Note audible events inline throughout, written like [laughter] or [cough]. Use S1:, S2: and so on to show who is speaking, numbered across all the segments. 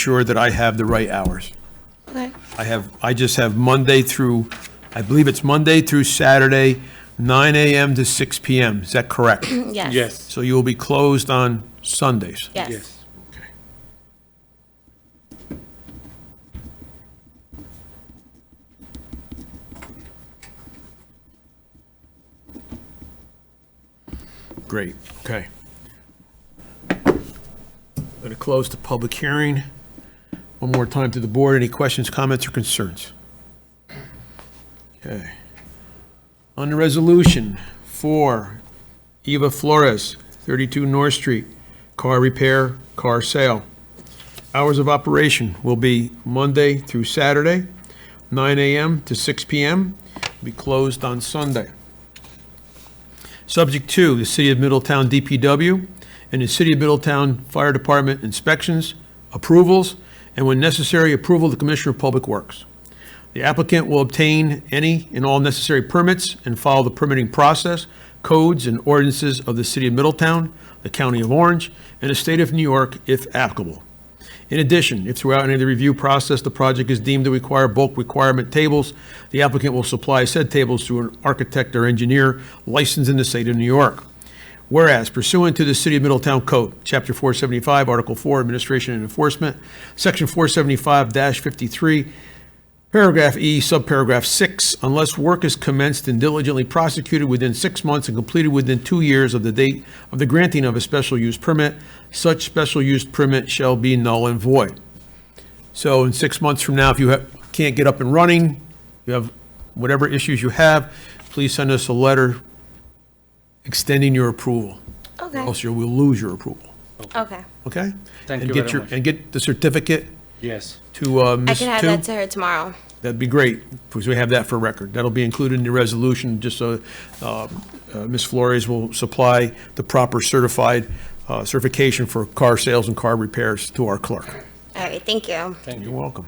S1: sure that I have the right hours.
S2: Okay.
S1: I have, I just have Monday through, I believe it's Monday through Saturday, 9 AM to 6 PM. Is that correct?
S2: Yes.
S3: Yes,
S1: So you will be closed on Sundays?
S2: Yes.
S3: yes.
S1: Great, okay. I'm going to close the public hearing. One more time to the board, any questions, comments, or concerns? Okay. On the resolution for Eva Flores, 32 North Street, car repair, car sale. Hours of operation will be Monday through Saturday, 9 AM to 6 PM, be closed on Sunday. Subject to the City of Middletown DPW and the City of Middletown Fire Department inspections, approvals, and when necessary, approval of the Commissioner of Public Works. The applicant will obtain any and all necessary permits and follow the permitting process, codes, and ordinances of the City of Middletown, the County of Orange, and the State of New York if applicable. In addition, if throughout any of the review process, the project is deemed to require bulk requirement tables, the applicant will supply said tables to an architect or engineer licensed in the state of New York. Whereas pursuant to the City of Middletown Code, Chapter 475, Article 4, Administration and Enforcement, Section 475-53, Paragraph E, subparagraph 6, unless work is commenced and diligently prosecuted within six months and completed within two years of the date of the granting of a special use permit, such special use permit shall be null and void. So in six months from now, if you have- can't get up and running, you have whatever issues you have, please send us a letter extending your approval, or
S2: Okay.
S1: else you will lose your approval,
S2: Okay.
S1: okay?
S3: Thank
S1: And
S3: you
S1: get
S3: very
S1: your-
S3: much.
S1: And get the certificate
S3: Yes.
S1: to uh,
S2: I
S1: Ms.
S2: can have
S1: Tu.
S2: that to her tomorrow.
S1: That'd be great, because we have that for record. That'll be included in the resolution, just so uh, uh, Ms. Flores will supply the proper certified uh, certification for car sales and car repairs to our clerk.
S2: All right. Thank you.
S1: You're welcome.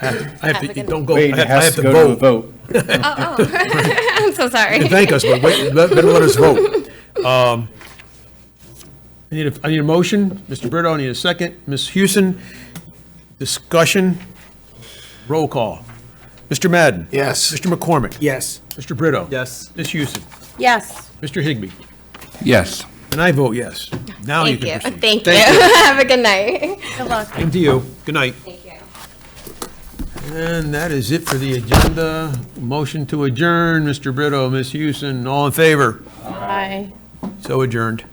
S1: I have to, I have to,
S2: Applicant.
S1: don't go, I
S4: Wait, it
S1: have I
S4: has
S1: have
S4: to go to a
S1: to vote.
S4: vote.
S2: Oh, [laughs] I'm so sorry.
S1: Thank us, but wait, let- better let us vote. Um, I need a, I need a motion. Mr. Brito, I need a second. Ms. Houston, discussion, roll call. Mr. Madden?
S4: Yes.
S1: Mr. McCormick?
S4: Yes.
S1: Mr. Brito? Yes. Ms. Houston?
S2: Yes.
S1: Mr. Higbee?
S5: Yes.
S1: And I vote yes. Now you
S2: Thank you.
S1: can proceed.
S2: Thank you. [laughs] Have a good night.
S1: Same to you. Good night.
S2: Thank you.
S1: And that is it for the agenda. Motion to adjourn, Mr. Brito, Ms. Houston, all in favor? Aye. So adjourned.